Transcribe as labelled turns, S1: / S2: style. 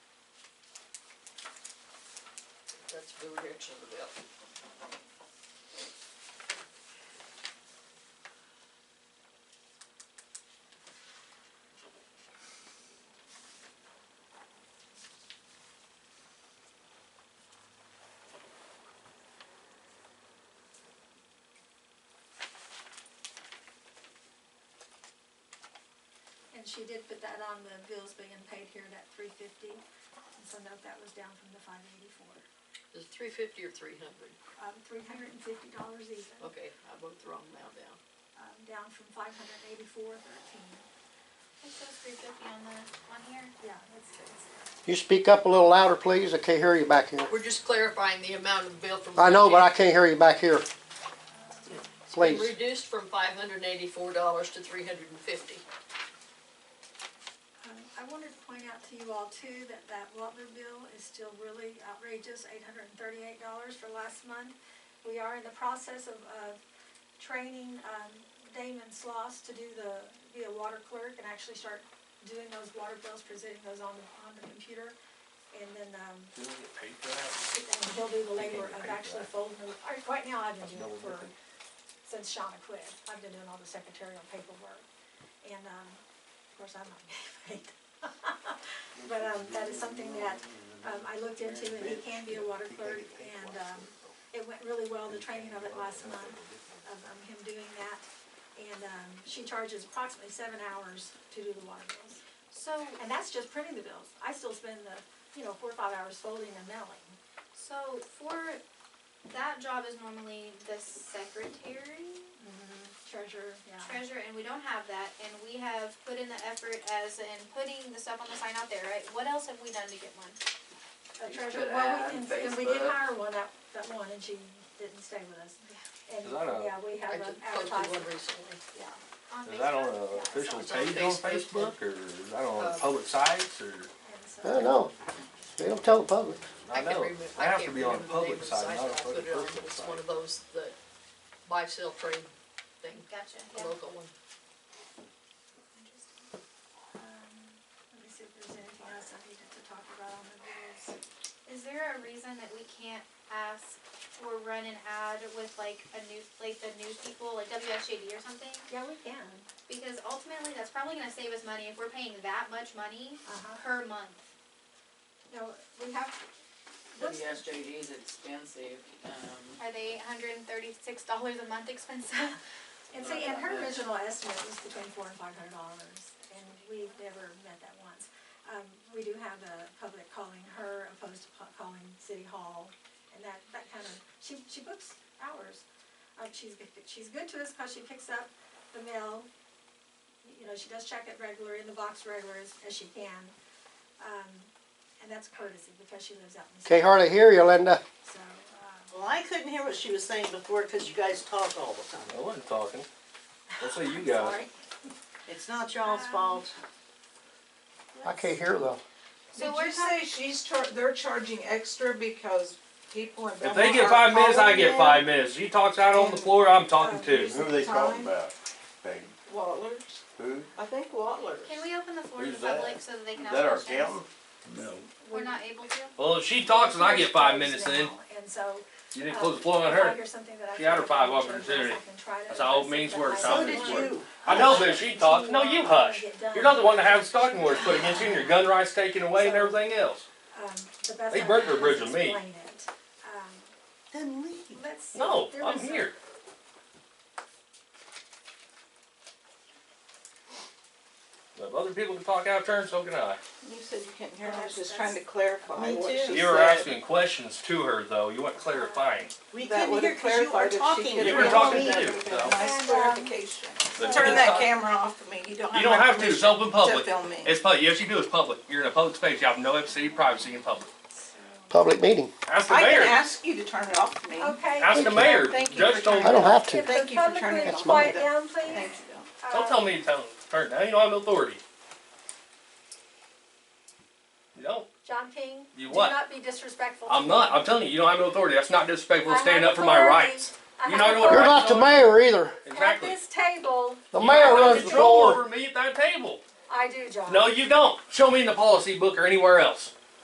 S1: the rejection of the bill.
S2: And she did put that on the bills being paid here at three fifty, and so note that was down from the five eighty-four.
S1: Is it three fifty or three hundred?
S2: Um, three hundred and fifty dollars even,
S1: Okay, I wrote the wrong amount down.
S2: um, down from five hundred and eighty-four thirteen.
S3: It says three fifty on the, on here.
S2: Yeah, it's, it's,
S4: You speak up a little louder, please. I can't hear you back here.
S1: We're just clarifying the amount of bill from.
S4: I know, but I can't hear you back here.
S1: It's been
S4: Please.
S1: Reduced from five hundred and eighty-four dollars to three hundred and fifty.
S2: um, I wanted to point out to you all too, that that Wattler bill is still really outrageous, eight hundred and thirty-eight dollars for last month. We are in the process of, of training, um, Damon Sloss to do the, be a water clerk and actually start doing those water bills, presenting those on the, on the computer. And then, um,
S5: Do we get paid for that?
S2: and he'll do the labor
S5: get
S2: of
S5: paid for
S2: actually
S5: that.
S2: folding the, or right now I've been
S5: That's
S2: doing it
S5: double
S2: for,
S5: dipping.
S2: since Shauna quit, I've been doing all the secretarial paperwork. And, um, of course, I'm not getting paid. But, um, that is something that, um, I looked into and he can be a water clerk and, um, it went really well, the training of it last month, of, um him doing that. And, um, she charges approximately seven hours to do the water bills.
S3: So,
S2: And that's just printing the bills. I still spend the, you know, four or five hours folding and mailing.
S3: so for, that job is normally the secretary,
S2: Treasure, yeah.
S3: treasurer, and we don't have that, and we have put in the effort as in putting the stuff on the sign out there, right? What else have we done to get one?
S2: a
S5: You
S2: treasure,
S5: could
S2: well,
S5: add
S2: we, and, and we did
S5: Facebook.
S2: hire one, that, that one, and she didn't stay with us. And,
S5: 'Cause I know-
S2: yeah,
S1: I
S2: we have an
S1: just posted one
S2: advertisement,
S1: recently.
S2: yeah.
S3: On
S5: Is that on
S3: Facebook?
S5: an official
S1: It's on
S5: page on
S1: Facebook.
S5: Facebook, or is that on
S1: Uh,
S5: public sites, or,
S2: And
S4: I don't
S2: so,
S4: know. They don't tell the public.
S5: I
S1: can't
S5: know,
S1: remem-
S5: I have to
S1: can't
S5: be on a public
S1: remember the name of the
S5: site, not a
S1: that I put it on.
S5: personal
S1: It's
S5: site.
S1: one of those, the buy, sell, trade thing,
S3: Gotcha,
S1: a
S3: yeah.
S1: local one.
S3: Interesting.
S2: um, let me see if there's anything else I needed to talk about on the bills.
S3: Is there a reason that we can't ask or run an ad with like a news, like the news people, like WSJD or something?
S2: Yeah, we can,
S3: Because ultimately, that's probably gonna save us money if we're paying that much money
S2: uh-huh,
S3: per month.
S2: no, we have, what's,
S6: The SJD is expensive, um,
S3: Are they hundred and thirty-six dollars a month expensive?
S2: and see, and her original estimate was between four and five hundred dollars, and we've never met that once. Um, we do have the public calling her opposed to pu- calling City Hall, and that, that kind of, she, she books hours. Um, she's, good- she's good to us because she picks up the mail, you know, she does check it regularly, in the box regular as, as she can. Um, and that's courtesy because she lives out in the city,
S4: Can't hardly hear you, Linda.
S2: so, um,
S7: Well, I couldn't hear what she was saying before because you guys talk all the time.
S5: I wasn't talking, that's what you guys.
S2: sorry.
S7: It's not y'all's
S2: Um,
S7: fault.
S4: I can't hear though.
S3: So
S8: Did
S3: we're
S8: you
S3: talking,
S8: say she's char- they're charging extra because people in
S9: If
S8: Belmont
S9: they get
S8: are
S9: five minutes, I
S8: calling
S9: get
S8: in?
S9: five minutes. She talks out on the floor, I'm talking too.
S8: Who's
S10: Who are they talking
S8: time?
S10: about? Peggy?
S8: Watlers,
S10: Who?
S8: I think Watlers.
S3: can we open the floor to the
S10: Who's that?
S3: public so that they can
S10: Is
S3: ask
S10: that our
S3: questions?
S10: accountant?
S6: no.
S3: We're not able to?
S9: Well, if she talks and I get five minutes
S2: Now,
S9: in,
S2: And so,
S9: you didn't close the floor on her.
S2: She had her five opportunity. That's how old means
S9: means
S2: work,
S9: work,
S2: so
S7: So
S9: South
S2: did
S7: did
S9: Means
S2: you.
S7: you.
S9: I know, but if she talks, no, you hush. You're not the one that has stocking words put against you and your gun rights taken away and everything else.
S2: um, They burnt their bridge on me. Um,
S7: Then leave.
S9: No, I'm here. But If other people can talk out of turn, so can I.
S8: You said you couldn't hear, I was just
S2: That's-
S8: trying to clarify
S7: Me
S8: what she
S7: too.
S8: said.
S9: You were asking questions to her though. You weren't clarifying.
S7: We couldn't
S8: That
S7: hear
S8: would've
S7: because you were
S8: clarified if she
S7: talking.
S8: could've
S9: You were
S8: been
S9: talking
S8: on
S9: too,
S8: that.
S9: so.
S3: um,
S8: Nice clarification.
S9: But you
S8: Turn
S9: can
S8: that
S9: talk-
S8: camera off for me, you don't have
S9: You don't
S8: my
S9: have to. It's
S8: permission
S9: open public.
S8: To film me.
S9: It's public. Yes, you do. It's public. You're in a public space. You have no city privacy in public.
S4: Public meeting.
S9: Ask the
S8: I
S9: mayor.
S8: can ask you to turn it off for me.
S9: Ask the mayor.
S8: Thank you.
S9: Judge told
S4: I don't have to.
S8: Thank you for turning it off.
S4: quiet
S2: down, please. uh,
S8: Thank you.
S9: Don't tell me to tell, turn down. You don't have no authority. You don't.
S2: John King,
S9: You
S2: do
S9: what?
S2: not be disrespectful.
S9: I'm not. I'm telling you, you don't have no authority. That's not disrespectful. It's standing up for my rights.
S2: You
S9: You
S2: know
S9: know
S2: what?
S9: what-
S4: You're not the mayor either.
S9: Exactly.
S2: table,
S4: The
S9: You have
S4: mayor
S9: no
S4: runs the
S9: control
S4: floor.
S9: over me at that table.
S2: I do, John.
S9: No, you don't. Show me in the policy book or anywhere else.